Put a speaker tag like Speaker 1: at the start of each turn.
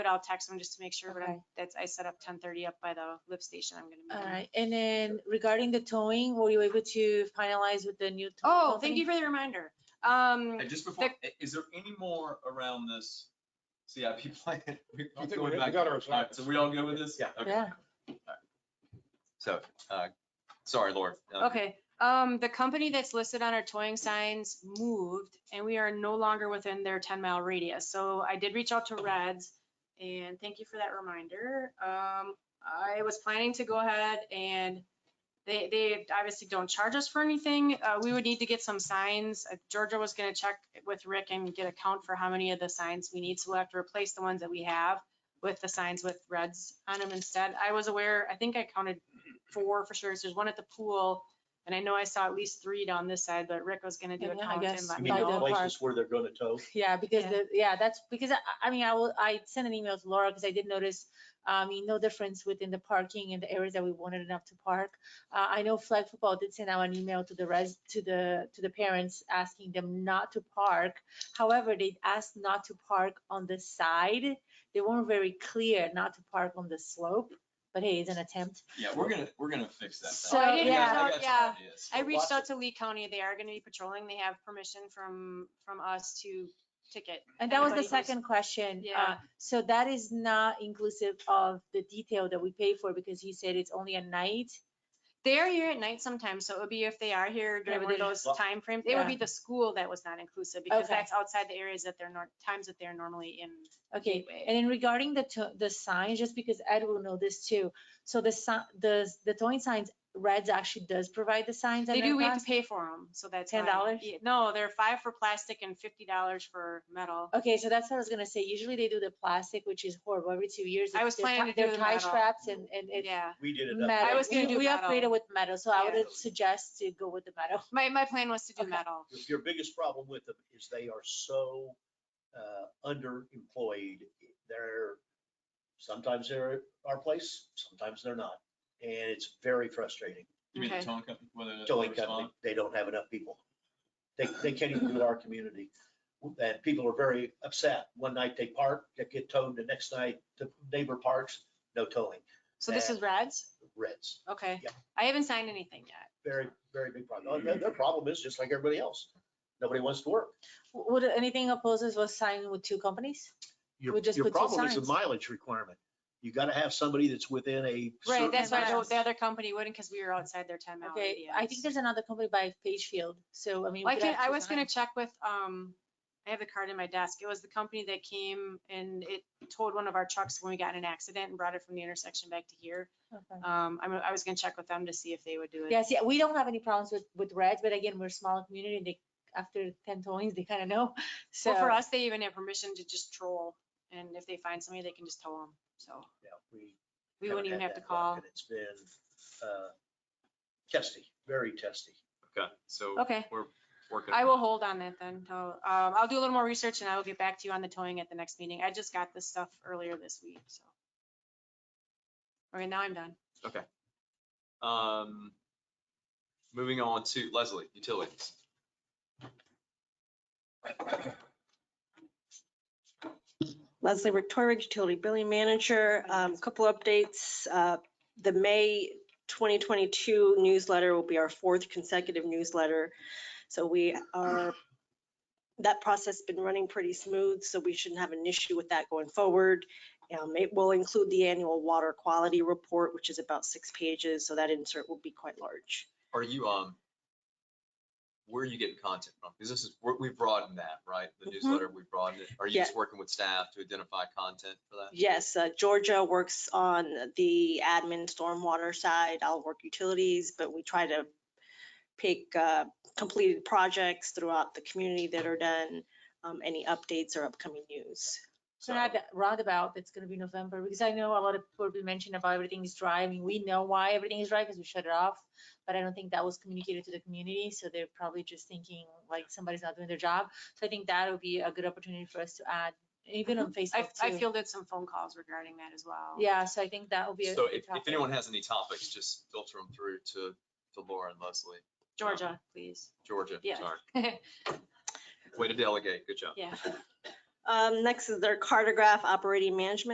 Speaker 1: but I'll text them just to make sure, but I'm-
Speaker 2: Okay.
Speaker 1: that's, I set up ten thirty up by the lift station. I'm gonna. meet
Speaker 2: All
Speaker 1: them.
Speaker 2: right, and then regarding the towing, were you able to finalize with the new? tow
Speaker 1: Oh, thank
Speaker 2: company?
Speaker 1: you for the reminder. Um,
Speaker 3: And just before, i- is there any more around this CIP plan? We keep
Speaker 4: I think we
Speaker 3: going
Speaker 4: we
Speaker 3: back.
Speaker 4: got our.
Speaker 3: All right, So we all good with this?
Speaker 4: Yeah.
Speaker 3: Okay.
Speaker 2: Yeah.
Speaker 3: So, uh, sorry, Lord. Uh,
Speaker 1: okay, um, the company that's listed on our towing signs moved and we are no longer within their ten mile radius. So I did reach out to Reds and thank you for that reminder. Um, I was planning to go ahead and they, they obviously don't charge us for anything. Uh, we would need to get some signs. Uh, Georgia was gonna check with Rick and get a count for how many of the signs we need. So we'll have to replace the ones that we have with the signs with reds on them instead. I was aware, I think I counted four for sure. So There's one at the pool. And I know I saw at least three down this side, but Rick was gonna do a
Speaker 2: Yeah, I
Speaker 1: count
Speaker 2: guess
Speaker 1: and let
Speaker 2: You
Speaker 1: me
Speaker 2: mean by
Speaker 1: know.
Speaker 2: the- park.
Speaker 5: places where they're gonna tow.
Speaker 2: Yeah, because
Speaker 1: Yeah.
Speaker 2: the, yeah, that's, because I, I mean, I will, I sent an email to Laura because I did notice, I mean, no difference within the parking and the areas that we wanted enough to park. Uh, I know flag football did send out an email to the res, to the, to the parents asking them not to park. However, they asked not to park on the side. They weren't very clear not to park on the slope, but hey, it's an attempt.
Speaker 3: Yeah, we're gonna, we're gonna fix that.
Speaker 2: So,
Speaker 3: I
Speaker 2: I yeah.
Speaker 3: got- I got some
Speaker 1: yeah.
Speaker 3: ideas.
Speaker 1: I
Speaker 5: Or
Speaker 1: reached
Speaker 5: lots
Speaker 1: out
Speaker 5: of-
Speaker 1: to Lee County. They are gonna be patrolling. They have permission from, from us to ticket.
Speaker 2: And that was the
Speaker 1: anybody who's-
Speaker 2: second question.
Speaker 1: Yeah.
Speaker 2: Uh, So that is not inclusive of the detail that we pay for because he said it's only at night.
Speaker 1: They are here at night sometimes, so it would be if they are here during
Speaker 2: but
Speaker 1: one of
Speaker 2: they-
Speaker 1: those
Speaker 5: Well-
Speaker 1: timeframes. It would
Speaker 2: Yeah.
Speaker 1: be the school that was not inclusive because
Speaker 2: Okay.
Speaker 1: that's outside the areas that they're nor, times that they're normally in.
Speaker 2: Okay,
Speaker 1: gateway.
Speaker 2: and then regarding the, to- the signs, just because Ed will know this too, so the, si- the, the towing signs, Reds actually does provide the signs.
Speaker 1: They
Speaker 2: and
Speaker 1: do,
Speaker 2: they're
Speaker 1: we have to
Speaker 2: plastic.
Speaker 1: pay for them, so that's.
Speaker 2: $10?
Speaker 1: why- yeah, No, they're five for plastic and fifty dollars for metal.
Speaker 2: Okay, so that's what I was gonna say, usually they do the plastic, which is horrible, every two years.
Speaker 1: I
Speaker 2: it's-
Speaker 1: was
Speaker 2: they're
Speaker 1: planning
Speaker 2: ti-
Speaker 1: to do
Speaker 2: They're
Speaker 1: the
Speaker 2: tie
Speaker 1: metal.
Speaker 2: straps and, and it's
Speaker 1: Yeah,
Speaker 5: We did it. up
Speaker 2: metal.
Speaker 1: I was gonna
Speaker 2: We-
Speaker 1: do
Speaker 2: We
Speaker 1: metal.
Speaker 2: upgraded with metal, so I
Speaker 1: Yeah.
Speaker 2: would suggest to go with the metal.
Speaker 1: my, my plan was to do
Speaker 2: Okay.
Speaker 1: metal.
Speaker 5: there. Your biggest problem with them is they are so uh, underemployed. They're, sometimes they're at our place, sometimes they're not. And it's very frustrating.
Speaker 3: You mean the
Speaker 1: Okay.
Speaker 3: towing company, whether they'll
Speaker 5: Towing
Speaker 3: respond?
Speaker 5: company, they don't have enough people. They, they can't even do our community. And people are very upset. One night they park, they get towed, the next night the neighbor parks, no towing,
Speaker 1: So this
Speaker 5: That-
Speaker 1: is Reds?
Speaker 5: reds.
Speaker 1: Okay.
Speaker 5: Yeah.
Speaker 1: I haven't signed anything yet.
Speaker 5: very, very big problem. And Their, their problem is just like everybody else. Nobody wants to work.
Speaker 2: W- Would anything oppose us was signing with two companies?
Speaker 5: Your,
Speaker 2: We just
Speaker 5: your
Speaker 2: put two
Speaker 5: problem is the
Speaker 2: signs.
Speaker 5: mileage requirement. You gotta have somebody that's within a.
Speaker 1: Right,
Speaker 5: certain
Speaker 1: that's why the,
Speaker 2: miles.
Speaker 1: the other company wouldn't, because we were outside their ten mile
Speaker 2: Okay,
Speaker 1: radius.
Speaker 2: I think there's another company by Pagefield, so I mean. we
Speaker 1: Well, I
Speaker 2: could
Speaker 1: can,
Speaker 2: have
Speaker 1: I
Speaker 2: two
Speaker 1: was gonna
Speaker 2: signs.
Speaker 1: check with, um, I have the card in my desk. It was the company that came and it towed one of our trucks when we got in an accident and brought it from the intersection back to here.
Speaker 2: Okay.
Speaker 1: Um, I'm, I was gonna check with them to see if they would do it.
Speaker 2: Yes, yeah, we don't have any problems with, with reds, but again, we're a smaller community, and they, after ten towings, they kind of know, so.
Speaker 1: Well, for us, they even have permission to just troll and if they find somebody, they can just tow them. So
Speaker 5: Yeah, we
Speaker 1: we
Speaker 5: haven't
Speaker 1: wouldn't even
Speaker 5: had
Speaker 1: have to
Speaker 5: that luck,
Speaker 1: call.
Speaker 5: and It's been, uh, testy, very testy.
Speaker 3: Okay, so.
Speaker 1: Okay.
Speaker 3: We're working.
Speaker 1: I will
Speaker 3: on it.
Speaker 1: hold on that then. until- Um, I'll do a little more research and I will get back to you on the towing at the next meeting. I just got this stuff earlier this week, so. All right, now I'm done.
Speaker 3: Um, moving on to Leslie, utilities.
Speaker 6: Leslie Victorich, Utility Billing Manager. Um, Couple updates. Uh, The May 2022 newsletter will be our fourth consecutive newsletter. So we are, that process has been running pretty smooth, so we shouldn't have an issue with that going forward. Um, It will include the annual water quality report, which is about six pages, so that insert will be quite large.
Speaker 3: Are you, um, where are you getting content from? Because this is, we're- we broadened that, right? The
Speaker 1: Mm-hmm.
Speaker 6: Mhm.
Speaker 3: newsletter, we broadened it. Are you
Speaker 6: Yeah.
Speaker 3: just working with staff to identify content for that?
Speaker 6: Yes, uh, Georgia works on the admin stormwater side. I'll work utilities, but we try to pick uh, completed projects throughout the community that are done, um, any updates or upcoming news.
Speaker 2: So now that roundabout, it's gonna be November, because I know a lot of people have been mentioning about everything is dry, I mean, we know why everything is dry, because we shut it off. But I don't think that was communicated to the community, so they're probably just thinking like somebody's not doing their job. So I think that'll be a good opportunity for us to add, even on
Speaker 1: I,
Speaker 2: Facebook
Speaker 1: I
Speaker 2: too.
Speaker 1: fielded some phone calls regarding that as well.
Speaker 2: Yeah, so I think that will be. a
Speaker 3: So
Speaker 2: good
Speaker 3: if, if
Speaker 2: topic.
Speaker 3: anyone has any topics, just filter them through to, to Laura and Leslie,
Speaker 1: Georgia, please.
Speaker 3: Georgia,
Speaker 1: Yes.
Speaker 3: sorry. Way to delegate, good job.
Speaker 1: Yeah.
Speaker 6: Um, Next is their cartograph operating management